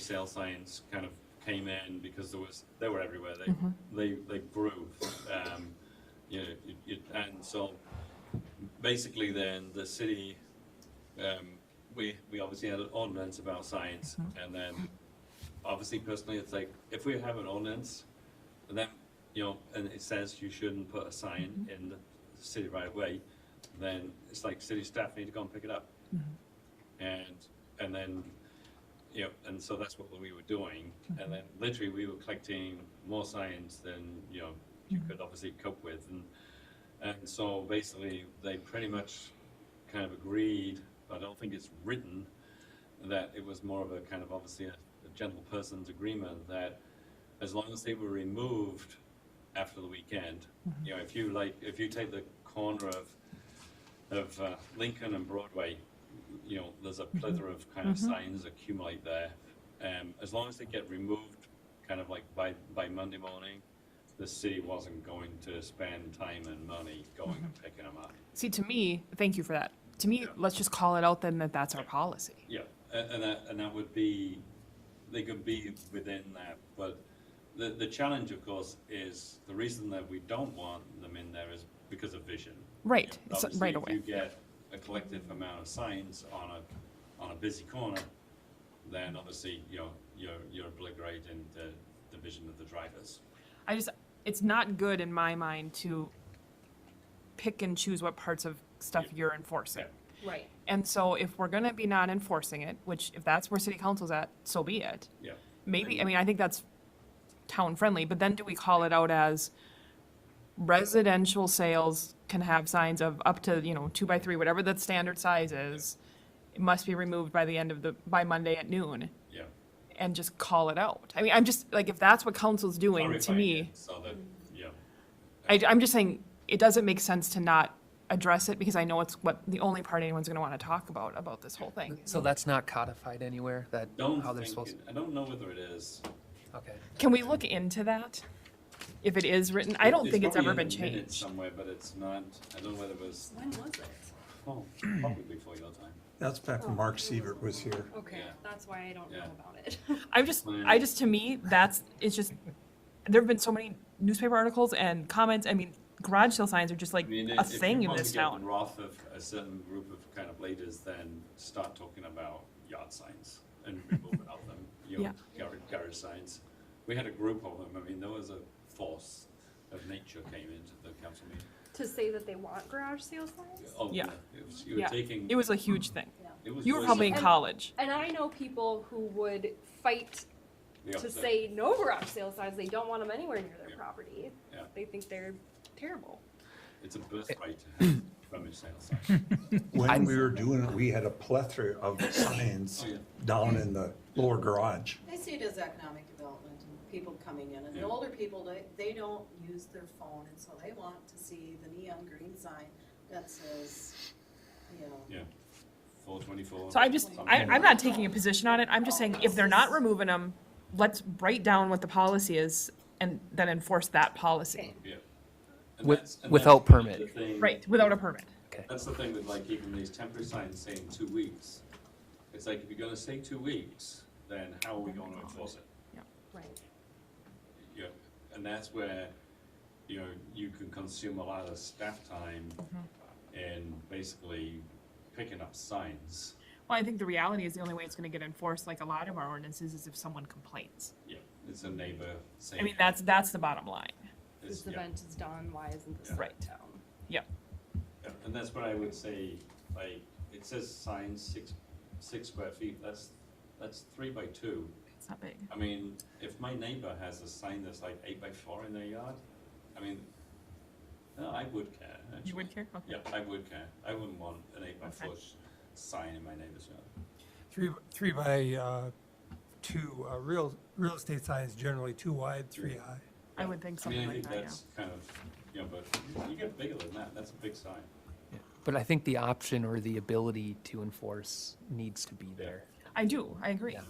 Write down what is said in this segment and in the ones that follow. sale signs kind of came in because there was they were everywhere. They they they grew, um, you know, you, you, and so basically then the city, um, we we obviously had an ordinance about signs, and then obviously personally it's like if we have an ordinance, then you know, and it says you shouldn't put a sign in the city right of way, then it's like city staff need to go and pick it up, and and then you know, and so that's what we were doing. And then literally we were collecting more signs than, you know, you could obviously cope with. And, and so basically they pretty much kind of agreed, I don't think it's written, that it was more of a kind of obviously a, a gentle person's agreement that as long as they were removed after the weekend, you know, if you like, if you take the corner of, of uh, Lincoln and Broadway, you know, there's a plethora of kind of signs accumulate there. Um, as long as they get removed, kind of like by, by Monday morning, the city wasn't going to spend time and money going and picking them up. See, to me, thank you for that. To me, let's just call it out then that that's our policy. Yeah, and, and that, and that would be, they could be within that, but the, the challenge, of course, is the reason that we don't want them in there is because of vision. Right, You know, it's obviously, right if You away. get a collective amount of signs on a, on a busy corner, then obviously, you know, you're, you're obliterating the, the vision of the drivers. I just, it's not good in my mind to pick and choose what parts of stuff Yeah. you're enforcing. Yeah. Right. And so if we're gonna be not enforcing it, which if that's where city council's at, so be it. Yeah, Maybe, I mean, I think that's town friendly, but then do we call it out as residential sales can have signs of up to, you know, two by three, whatever the standard size is? It must be removed by the end of the, by Monday at noon yeah. and just call it out. I mean, I'm just, like, if that's what council's doing, to Clarifying me, it So that, yeah, I, I'm just saying, it doesn't make sense to not address it because I know it's what, the only part anyone's gonna wanna talk about, about this whole thing. So that's not codified anywhere, that, don't how they're think, supposed, it- I don't know whether it is. okay. Can we look into that? If it is written, I don't think it's probably ever in the been minutes changed. Somewhere, but it's not, I don't know whether it was, When was it? oh, probably before your time. That's back when Mark Sievert was here. Okay, Yeah. that's why I don't know Yeah. about it. I'm just, I just, to me, that's, it's just, there've been so many newspaper articles and comments, I mean, garage sale signs are just like I mean, a if- if thing you in want to this get the town. Wrath of a certain group of kind of leaders, then start talking about yard signs and removing of them, you know, garage, garage signs. We had a group of them, I mean, there was a force of nature came into the council meeting. to say that they want garage sale signs? Oh, Yeah. It was, you were Yeah, taking. it was a huge thing. it was You were worse probably in than college. And I know people who would fight the to opposite. say no garage sale signs. They don't want them anywhere near their Yeah. property. Yeah. They think they're terrible. It's a birthright to have rummage sale signs. When we were doing it, we had a plethora of signs down in the lower garage. I see it as economic development and people coming in, and the older people, they, they don't use their phone, and so they want to see the neon green sign that says, you know, Yeah, four twenty-four. So I'm just, I, I'm not taking a position on it, I'm just saying, if they're not removing them, let's write down what the policy is and then enforce that policy. Yeah. And With- that's- and without that's really the permit. thing- Right, without a permit. That's the thing with like even these temporary signs saying two weeks. It's like if you're gonna say two weeks, then how are we going to enforce it? Right. You know, and that's where, you know, you can consume a lot of staff time Mm-hmm. in basically picking up signs. Well, I think the reality is the only way it's gonna get enforced, like a lot of our ordinances, is if someone complains. Yeah, it's a neighbor saying. I mean, that's, that's the bottom line. it's- This yeah. event is done. Why isn't this Yeah. Right. in town? Yep. Yeah, And that's what I would say, like, it says signs six, six square feet, that's, that's three by two. It's not big. I mean, if my neighbor has a sign that's like eight by four in their yard, I mean, no, I would care, actually. You would care? Okay. Yeah, I would care. I wouldn't want an eight by Okay. four sh- sign in my neighbor's yard. Three, three by, uh, two, uh, real, real estate signs generally two wide, three high. I would think I mean, something I like think that, yeah. that's kind of, you know, but you get bigger than that, that's a big sign. But I think the option or the ability to enforce needs to be there. I do, I agree, Yeah.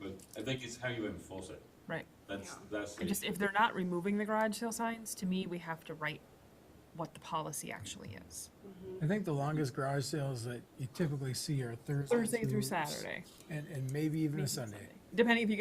But I think it's how you enforce it. right. That's, Yeah. that's. And the- just, if they're not removing the garage sale signs, to me, we have to write what the policy actually is. I think the longest garage sales that you typically see are Thursday. Thursday through Saturday. And, and maybe even maybe a Sunday. Sunday. depending if you get